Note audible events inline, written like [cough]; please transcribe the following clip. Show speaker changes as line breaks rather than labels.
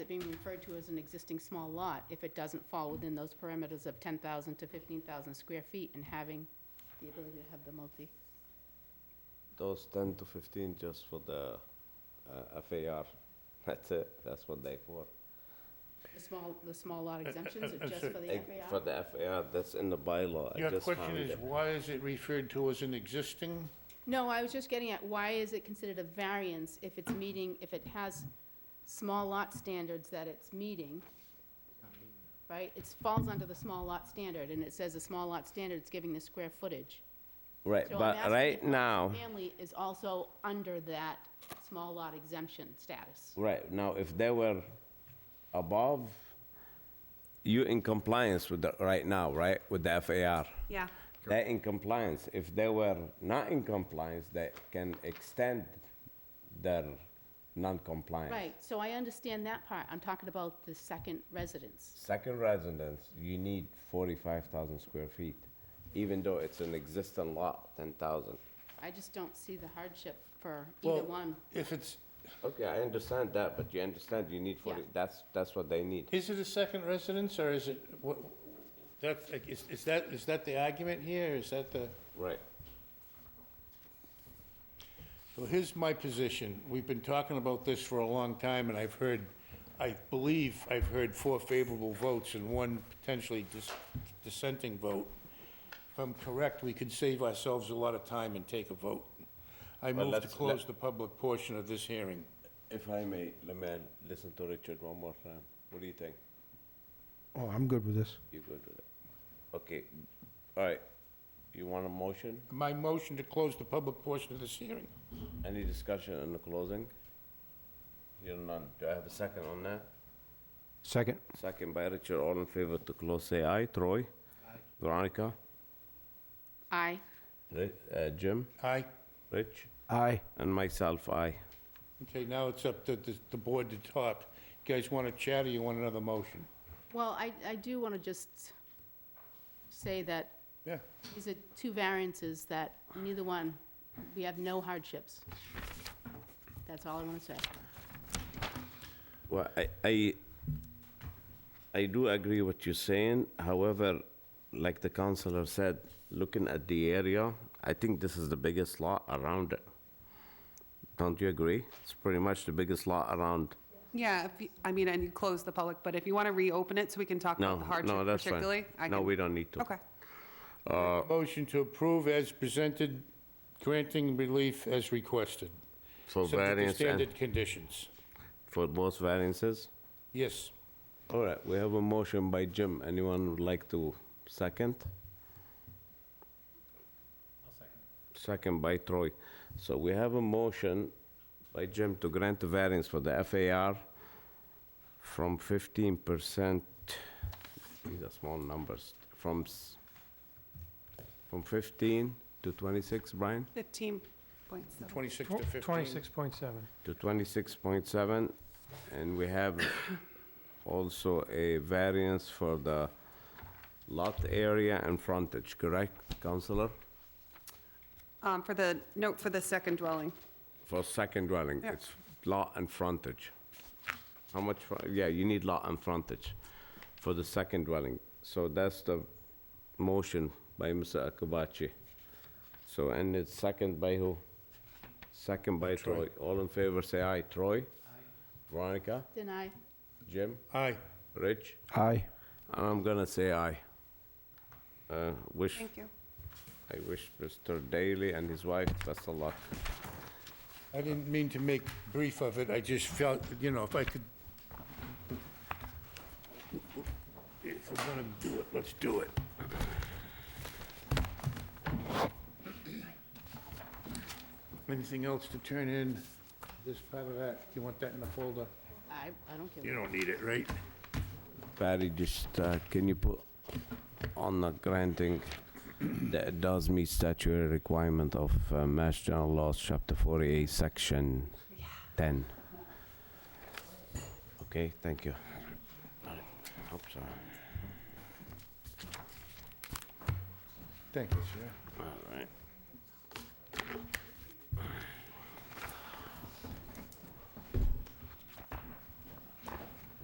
being referred to as an existing small lot if it doesn't fall within those parameters of ten thousand to fifteen thousand square feet and having the ability to have the multi.
Those 10 to 15 just for the uh, FAR, [laughs] that's it, that's what they for.
The small, the small lot exemptions
uh,
are just
sorry.
for the
Eh, For
FAR?
the FAR, that's in the bylaw. I
Your
just
question
found
is,
it.
why is it referred to as an existing?
No, I was just getting at, why is it considered a variance if it's meeting, if it has small lot standards that it's meeting? Right, it falls under the small lot standard, and it says the small lot standard is giving the square footage.
Right,
So I'm
but
asking
right
if the
now,
Family is also under that small lot exemption status.
right now, if they were above, you in compliance with the, right now, right, with the FAR?
Yeah,
They're in compliance. If they were not in compliance, they can extend their non-compliance.
Right, so I understand that part, I'm talking about the second residence.
Second residence, you need forty-five thousand square feet, even though it's an existing lot, ten thousand.
I just don't see the hardship for either
Well,
one.
If it's,
Okay, I understand that, but you understand you need forty,
Yeah.
that's, that's what they need.
is it a second residence, or is it, what, that's, like, is, is that, is that the argument here? Is that the?
Right.
So here's my position. We've been talking about this for a long time, and I've heard, I believe I've heard four favorable votes and one potentially dis- dissenting vote. If I'm correct, we could save ourselves a lot of time and take a vote. I
Well,
move to
let's-
close
let-
the public portion of this hearing.
If I may, let me listen to Richard one more time. What do you think?
Oh, I'm good with this.
You good with it? Okay, all right. You want a motion?
My motion to close the public portion of this hearing.
Any discussion in the closing? You're none. Do I have a second on that?
Second.
Second by Richard, all in favor to close, say aye. Troy? Aye. Veronica?
Aye.
Ri- uh, Jim?
Aye.
Rich?
Aye.
And myself, aye.
Okay, now it's up to the- the board to talk. You guys want to chat, or you want another motion?
Well, I, I do want to just say that
Yeah.
these are two variances that neither one, we have no hardships. That's all I want to say.
Well, I, I, I do agree what you're saying. However, like the counselor said, looking at the area, I think this is the biggest lot around it. Don't you agree? It's pretty much the biggest lot around.
yeah, if you- I mean, and you close the public, but if you want to reopen it so we can talk about
No,
the
no,
hardship
that's
particularly.
fine.
I
No,
can-
we don't need to.
Okay,
Uh. Motion to approve as presented, granting relief as requested.
For
Subject to
variance and,
standard conditions.
for both variances?
Yes.
All right, we have a motion by Jim. Anyone would like to second? Second by Troy. So we have a motion by Jim to grant the variance for the FAR from 15%, these are small numbers, from, s- from 15 to 26, Brian?
15.7.
26 to 15.
Twenty-six point seven.
to 26.7, and we have also a variance for the lot area and frontage, correct, Counselor?
Um, For the, note for the second dwelling,
For second dwelling,
Yeah.
it's lot and frontage. How much, fro- yeah, you need lot and frontage for the second dwelling. So that's the motion by Mr. Akabachi. So, and it's second by who? Second by Troy. All in favor, say aye. Troy? Aye. Veronica?
Then I,
Jim?
Aye.
Rich?
Aye.
And I'm gonna say aye. Uh, Wish,
thank you.
I wish Mr. Daly and his wife best of luck.
I didn't mean to make brief of it, I just felt, you know, if I could... If we're gonna do it, let's do it. Anything else to turn in? This part of that, you want that in the folder?
I, I don't care.
You don't need it, right?
Patty, just, uh, can you put on the granting that it does meet statutory requirement of uh, Mass General Laws, Chapter 48, Section 10? Okay, thank you. Hope so.
Thank you, sir.
All right.